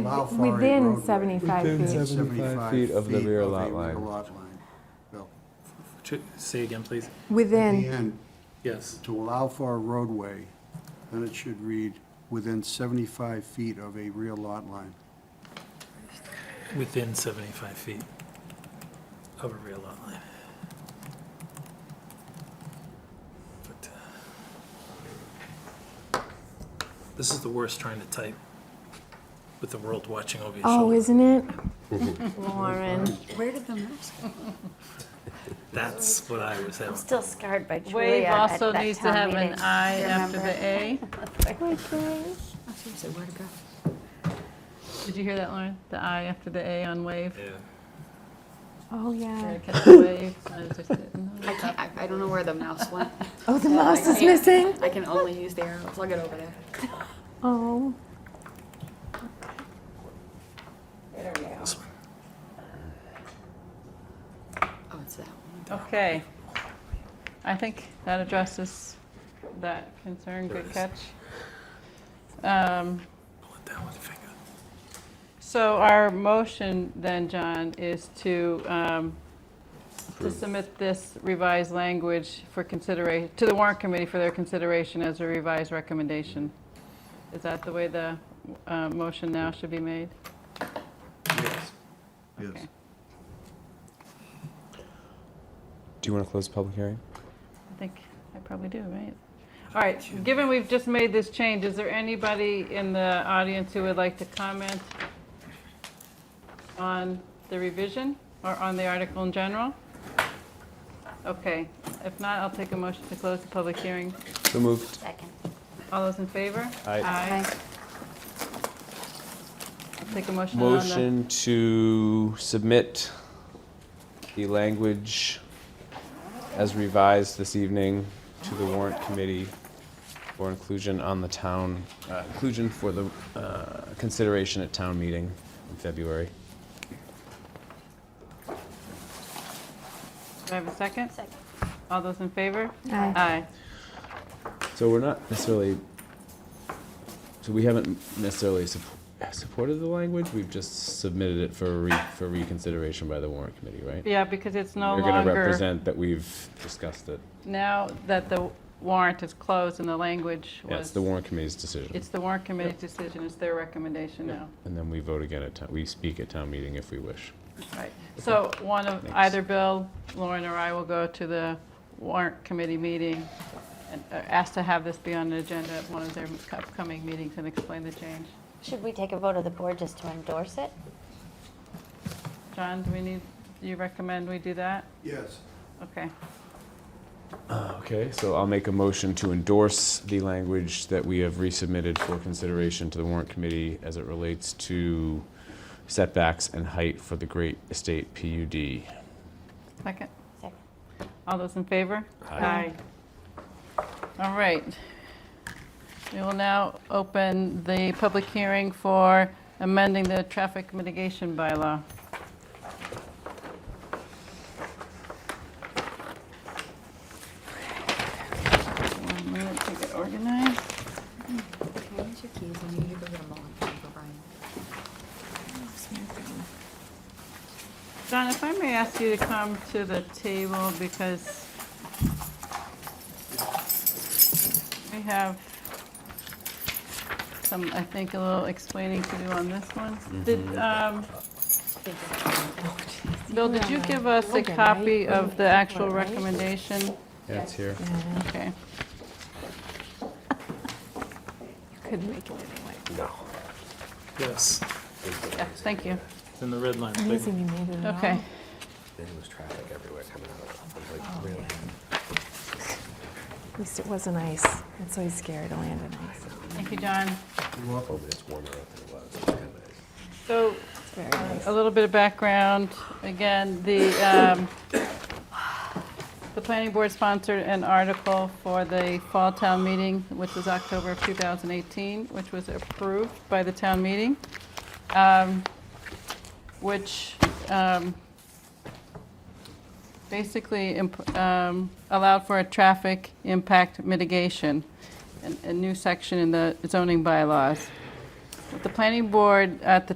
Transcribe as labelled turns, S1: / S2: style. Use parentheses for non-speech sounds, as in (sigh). S1: allow for a
S2: Within
S1: roadway.
S2: 75
S3: Within
S2: feet.
S3: 75 feet of the
S1: feet
S3: rear
S1: of the
S3: lot line.
S1: rear lot line. Bill,
S4: Ch- Say again, please.
S1: At the
S2: Within,
S1: end,
S4: Yes.
S1: to allow for a roadway, then it should read within 75 feet of a rear lot line.
S4: Within 75 feet of a rear lot line. But, uh, This is the worst trying to type with the world watching over your
S2: oh,
S4: shoulder.
S2: isn't it? Lauren,
S5: Where did the mouse go?
S4: That's what I was having.
S6: Still scarred by
S7: Wave
S6: Julia at
S7: also
S6: that
S7: needs to
S6: town
S7: have an
S6: meeting.
S7: I after the A.
S5: Oh, seriously, where to go?
S7: Did you hear that, Lauren? The I after the A on wave.
S4: Yeah.
S2: oh,
S7: Try
S2: yeah.
S7: to catch the wave. I was just didn't
S5: I
S7: know.
S5: can't, I, I don't know where the mouse went.
S2: Oh, the mouse is
S5: can't.
S2: missing?
S5: I can only use the arrow, plug it over there.
S2: Oh,
S4: This one.
S5: Oh, it's that one.
S7: Okay. I think that addresses that concern. Good
S4: There
S7: catch. Um,
S4: Pull it down with your finger.
S7: So our motion then, John, is to, um, to submit this revised language for consideration, to the warrant committee for their consideration as a revised recommendation. Is that the way the uh, motion now should be made?
S1: Yes.
S7: Okay.
S3: Do you want to close the public hearing?
S7: I think I probably do, right? All right, given we've just made this change, is there anybody in the audience who would like to comment on the revision or on the article in general? Okay, if not, I'll take a motion to close the public hearing.
S3: So moved.
S6: (laughs) Second.
S7: All those in favor?
S3: Aye.
S7: Aye. I'll take a motion on the.
S3: Motion to submit the language as revised this evening to the warrant committee for inclusion on the town, uh, inclusion for the uh, consideration at town meeting in February.
S7: Do I have a second?
S6: Second.
S7: All those in favor?
S2: Aye.
S7: Aye.
S3: So we're not necessarily, so we haven't necessarily supp- supported the language, we've just submitted it for re- for reconsideration by the warrant committee, right?
S7: Yeah, because it's no
S3: You're
S7: longer.
S3: going to represent that we've discussed it.
S7: Now that the warrant is closed and the language was...
S3: Yeah, it's the warrant committee's decision.
S7: It's the warrant committee's decision, it's their recommendation now.
S3: And then we vote again at town, we speak at town meeting if we wish.
S7: Right. So one of,
S3: Thanks.
S7: either Bill, Lauren, or I will go to the warrant committee meeting and uh, ask to have this be on the agenda at one of their upcoming meetings and explain the change.
S6: Should we take a vote of the board just to endorse it?
S7: John, do we need, do you recommend we do that?
S1: Yes.
S7: Okay.
S3: Ah, Okay, so I'll make a motion to endorse the language that we have resubmitted for consideration to the warrant committee as it relates to setbacks and height for the Great Estate PUD.
S7: Second?
S6: Second.
S7: All those in favor?
S3: Aye.
S7: All right. We will now open the public hearing for amending the traffic mitigation bylaw. One minute to get organized.
S5: Can I use your keys? I need you to go get a mullet for Uncle Brian.
S7: John, if I may ask you to come to the table because we have some, I think, a little explaining to do on this one.
S8: Mm-hmm.
S7: Did, um, Bill, did you give us a copy of the actual recommendation?
S3: Yeah, it's here.
S7: Okay.
S2: couldn't make it anyway.
S4: Yes,
S7: Yeah, thank you.
S4: it's in the red line. big
S2: Amazing you made it at all.
S7: Okay.
S8: Then there was traffic everywhere coming out of, it was like, really?
S2: Oh, At least it wasn't ice. That's always scary to land on ice.
S7: Thank you, John.
S8: Oh, but it's warmer out than it was, it's kind of nice.
S7: So
S2: It's very nice.
S7: A little bit of background. Again, the, um, the planning board sponsored an article for the fall town meeting, which was October of 2018, which was approved by the town meeting, um, which um, basically imp- um, allowed for a traffic impact mitigation, a a new section in the zoning bylaws. The planning board at the